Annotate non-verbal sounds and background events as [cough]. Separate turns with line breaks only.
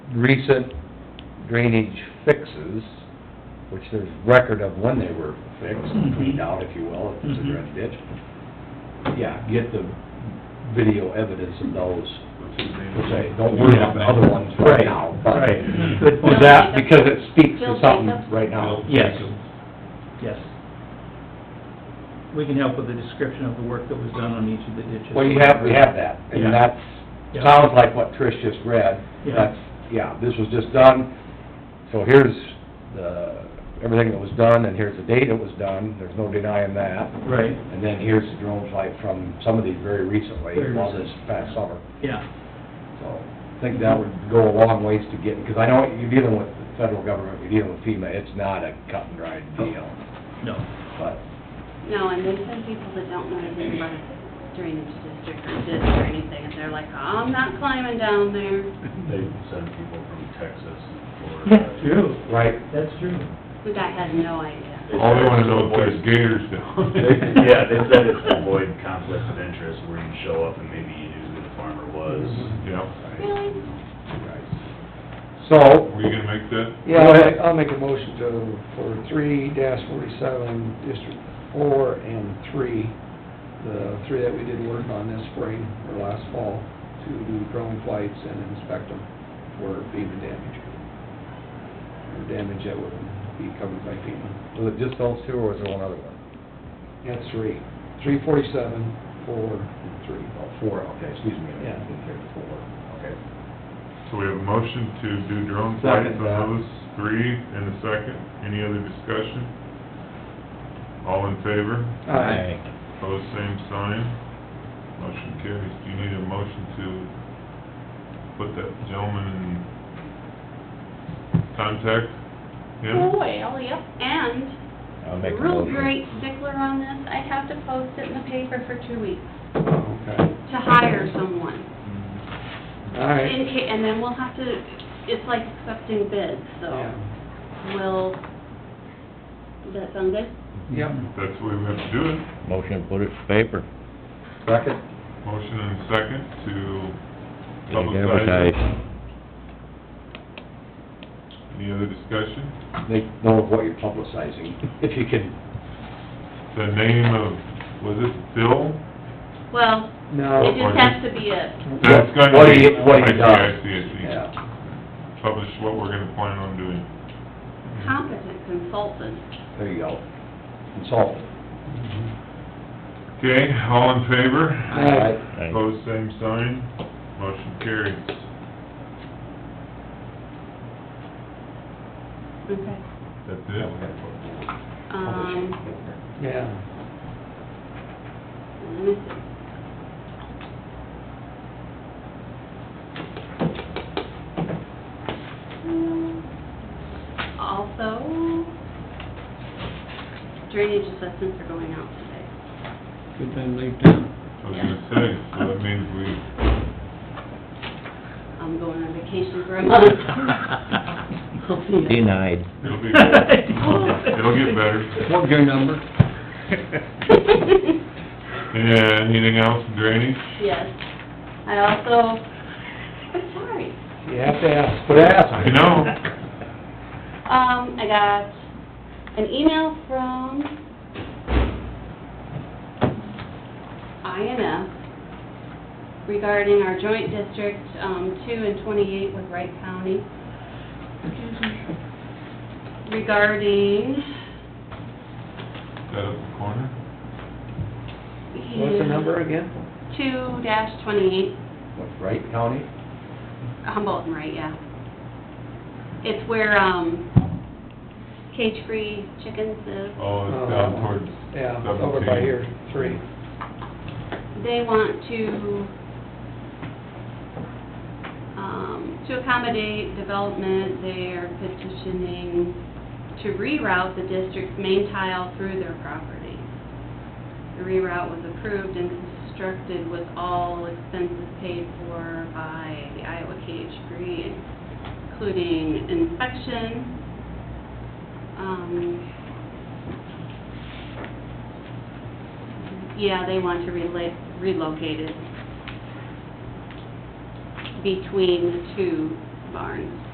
recent drainage fixes, which there's record of when they were fixed, cleaned out, if you will, if it's a
Mhm.
dredge ditch. Yeah, get the video evidence of those, per se. don't worry about the other ones right now. but-
Right, right.
Was that because it speaks to something right now?
Yes. Yes. We can help with the description of the work that was done on each of the ditches.
Well, you have, we have that,
Yeah.
and that's,
Yeah.
sounds like what Trish just read.
Yeah.
That's, yeah, this was just done, so here's the, everything that was done, and here's the date it was done, there's no denying that.
Right,
And then here's the drone flight from some of these very recently,
Very
on this
recent.
past summer.
yeah,
So, I think that would go a long ways to get, because I know you're dealing with the federal government, you're dealing with FEMA, it's not a cut and dried deal,
no,
but,
No, and there's some people that don't know anything about drainage district or ditch or anything, and they're like, "Oh, I'm not climbing down there.
They send people from Texas uh, and Florida.
true,
right?
that's true.
The guy has no idea. Oh,
All they wanna know is there's gators down there.
[laughs] Yeah, they said it's to avoid conflicts of interest where you show up and maybe you knew who the farmer was.
Yeah.
Really?
So,
Are you gonna make that?
Yeah, I'll make- I'll make a motion to, for three dash forty-seven, District Four and Three, the three that we did work on this spring or last fall, to do drone flights and inspect them for FEMA damage. Or damage that would be covered by FEMA.
was it just those two, or was there one other one?
That's three. Three forty-seven, Four, and Three.
Oh, four, okay, excuse me. I
Yeah.
didn't hear the Four, okay.
So we have a motion to do drone flights
Second,
on
uh,
those three and a second. Any other discussion? All in favor? Pose same sign. Motion carries. Do you need a motion to put that gentleman in contact? him?
Well, yep, and real great stickler on this, I have to post it in the paper for two weeks
Okay,
to hire someone.
all right.
In ca, and then we'll have to, it's like accepting bids, so
Yeah.
we'll, does that sound good?
Yep.
That's the way we have to do it.
Motion to put it to paper.
Second?
Motion and a second to publicize.
Advertise.
Any other discussion?
They know what you're publicizing, if you can,
The name of, was it Phil?
Well,
No.
it just has to be a,
That's gonna
What he-
be,
what he
I see, I
does.
see, I see.
yeah,
Publish what we're gonna plan on doing.
competent consultant.
there you go. Consultant.
Okay, all in favor?
Aye.
Aye.
Pose same sign, motion carries.
Okay.
That's it?
Um,
Yeah.
let me see. Um, Also, drainage assessments are going out today.
Good thing they did.
I was gonna say, so that means we,
I'm going on vacation for a month.
[laughs]
I'll see you.
Denied.
it'll
[laughs]
be, it'll get better.
What's your number?
[laughs]
[laughs] Yeah, uh, anything else in drainage?
[laughs] Yes. I also, I'm sorry.
You have to ask.
But ask.
I know,
Um, I got an email from INF regarding our joint district, um, two and twenty-eight with Wright County. Regarding,
that up the corner,
What's the number again?
Two dash twenty-eight
What's Wright County?
Humboldt and Wright, yeah. It's where, um, cage-free chickens live.
oh, it's down
Uh,
towards
Yeah,
seventeen.
over by here, three.
they want to, um, to accommodate development, they're petitioning to reroute the district's main tile through their property. The reroute was approved and constructed with all expenses paid for by the Iowa Cage Free, including inspection, um, Yeah, they want to relate, relocate it between the two barns.